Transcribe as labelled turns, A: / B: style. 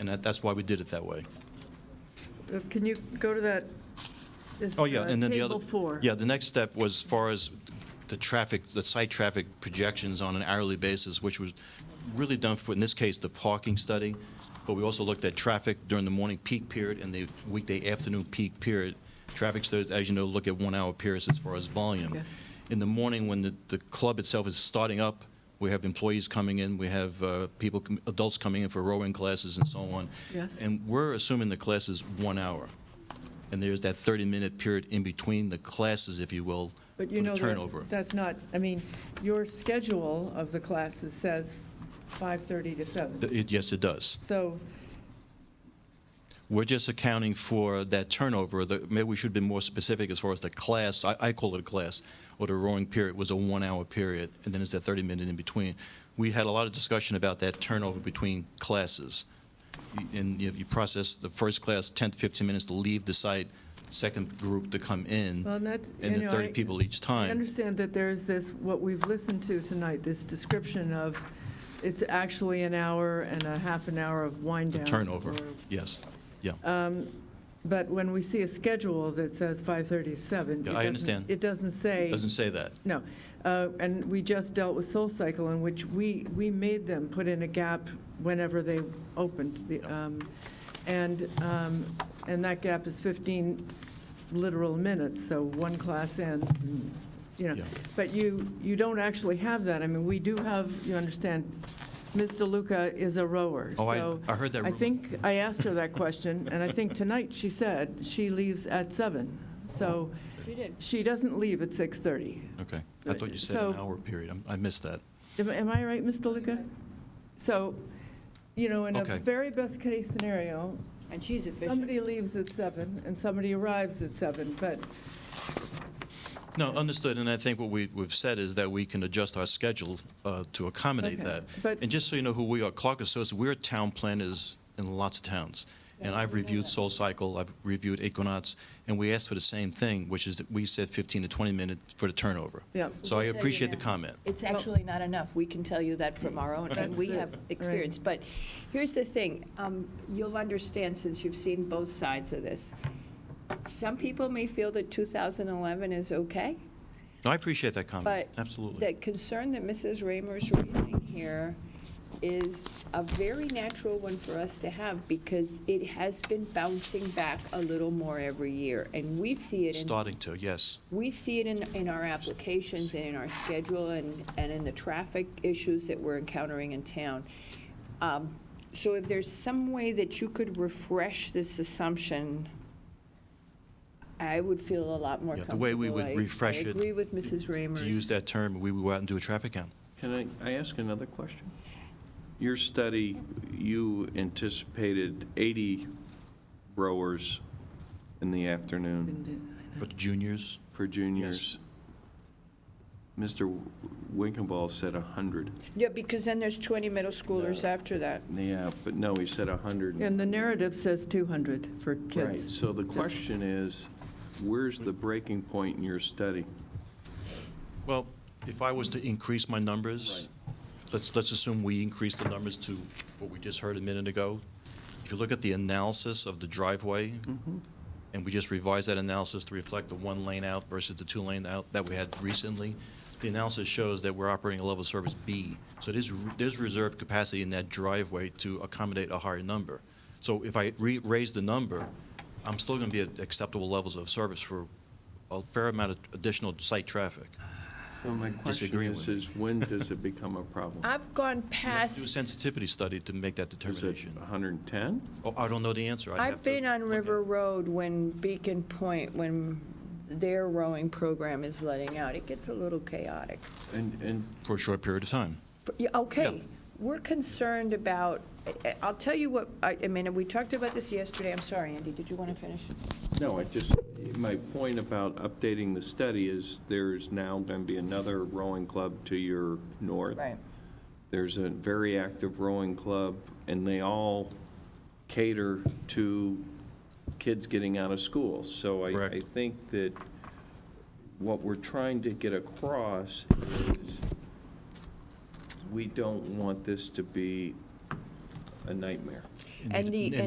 A: and that, that's why we did it that way.
B: Uh, Can you go to that? this,
A: Oh, yeah,
B: uh,
A: and then the other.
B: Table four.
A: Yeah, the next step was as far as the traffic, the site traffic projections on an hourly basis, which was really done for, in this case, the parking study, but we also looked at traffic during the morning peak period and the weekday afternoon peak period. Traffic studies, as you know, look at one-hour periods as far as volume.
B: Yes.
A: In the morning, when the, the club itself is starting up, we have employees coming in, we have uh, people, com- adults coming in for rowing classes and so on.
B: Yes.
A: And we're assuming the class is one hour. And there's that 30-minute period in between the classes, if you will, for
B: But you know,
A: the
B: that-
A: turnover.
B: that's not, I mean, your schedule of the classes says 5:30 to 7.
A: Th- it- Yes, it does.
B: So,
A: We're just accounting for that turnover. The- Maybe we should be more specific as far as the class, I I call it a class, or the rowing period was a one-hour period, and then it's that 30-minute in between. We had a lot of discussion about that turnover between classes. You- And you you process the first class 10 to 15 minutes to leave the site, second group to come in,
B: well, and that's, you
A: and then
B: know,
A: 30
B: I-
A: people each
B: I
A: time.
B: understand that there's this, what we've listened to tonight, this description of, it's actually an hour and a half an hour of wind
A: The
B: down.
A: turnover,
B: or-
A: yes.
B: But when we see a schedule that says 5:30
A: Yeah,
B: to 7. it
A: I
B: doesn't-
A: understand.
B: It doesn't say.
A: Doesn't say that.
B: No, Uh, and we just dealt with Soul Cycle, in which we, we made them put in a gap whenever they opened. the, um, And, um, and that gap is 15 literal minutes, so one class ends, and, you know.
A: Mm. Yeah.
B: But you, you don't actually have that. I mean, we do have, you understand, Ms. DeLuca is a rower.
A: Oh, I-
B: so
A: I heard that
B: I
A: rumor.
B: think, I asked her that question, and I think tonight she said she leaves at 7. So
C: She did.
B: she doesn't leave at 6:30.
A: Okay. I thought you said an
B: So-
A: hour period. I'm- I missed that.
B: Am- Am I right, Ms. DeLuca? So, you know, in a
A: Okay.
B: very best-case scenario,
C: And she's
B: somebody
C: efficient.
B: leaves at seven and somebody arrives at seven, but,
A: No, understood, and I think what we- we've said is that we can adjust our schedule uh, to accommodate
B: Okay,
A: that.
B: but-
A: And just so you know who we are, Clark Associates, we're town planners in lots of towns. And I've reviewed Soul Cycle, I've reviewed Equinox, and we asked for the same thing, which is that we said 15 to 20 minutes for the turnover.
B: yeah.
A: So I
C: We'll tell you
A: appreciate the
C: now.
A: comment.
C: It's actually not enough. We can tell you that from our own, and
B: That's
C: we
B: it.
C: have experience. But here's the thing, um, you'll understand since you've seen both sides of this. Some people may feel that 2011 is okay,
A: No, I appreciate that comment,
C: But
A: Um, absolutely.
C: The concern that Mrs. Raymer's raising here is a very natural one for us to have because it has been bouncing back a little more every year. And we see it in
A: Starting to, yes.
C: we see it in, in our applications and in our schedule and, and in the traffic issues that we're encountering in town. Um, So if there's some way that you could refresh this assumption, I would feel a lot more
A: Yeah,
C: comfortable.
A: the way we would
C: I-
A: refresh
C: I
A: it
C: agree with Mrs. Raymer.
A: To use that term, we would go out and do a traffic count.
D: Can I, I ask another question? Your study, you anticipated 80 rowers in the afternoon
A: For the juniors,
D: for juniors. Mr. Winkenball said 100.
C: Yeah, because then there's 20 middle schoolers after that.
D: Yeah, but no, he said 100.
B: And the narrative says 200 for
D: Right,
B: kids.
D: so the question is, where's the breaking point in your study?
A: Well, if I was to increase my numbers, let's, let's assume we increase the numbers to what we just heard a minute ago. If you look at the analysis of the driveway, and we just revised that analysis to reflect the one lane out versus the two lane out that we had recently, the analysis shows that we're operating a level of service B. So there's, there's reserved capacity in that driveway to accommodate a higher number. So if I re, raise the number, I'm still gonna be at acceptable levels of service for a fair amount of additional site traffic.
D: So my question
A: Disagree
D: is,
A: with you.
D: is when does it become a problem?
C: I've gone
A: Do a
C: past,
A: sensitivity study to make that
D: Is it
A: determination.
D: 110?
A: Oh, I don't know the answer. I'd have
C: I've
A: to-
C: been on
A: okay.
C: River Road when Beacon Point, when their rowing program is letting out. It gets a little chaotic.
D: And, and
A: For a short period of time.
C: For- yeah, Okay, we're concerned about, I- I- I'll tell you what, I I mean, and we talked about this yesterday, I'm sorry, Andy, did you want to finish?
D: No, I just, my point about updating the study is there's now going to be another rowing club to your north. There's a very active rowing club, and they all cater to kids getting out of school. So I,
A: Correct.
D: I think that what we're trying to get across is we don't want this to be a nightmare.
A: in
C: And
A: the-
C: the-
A: in
C: and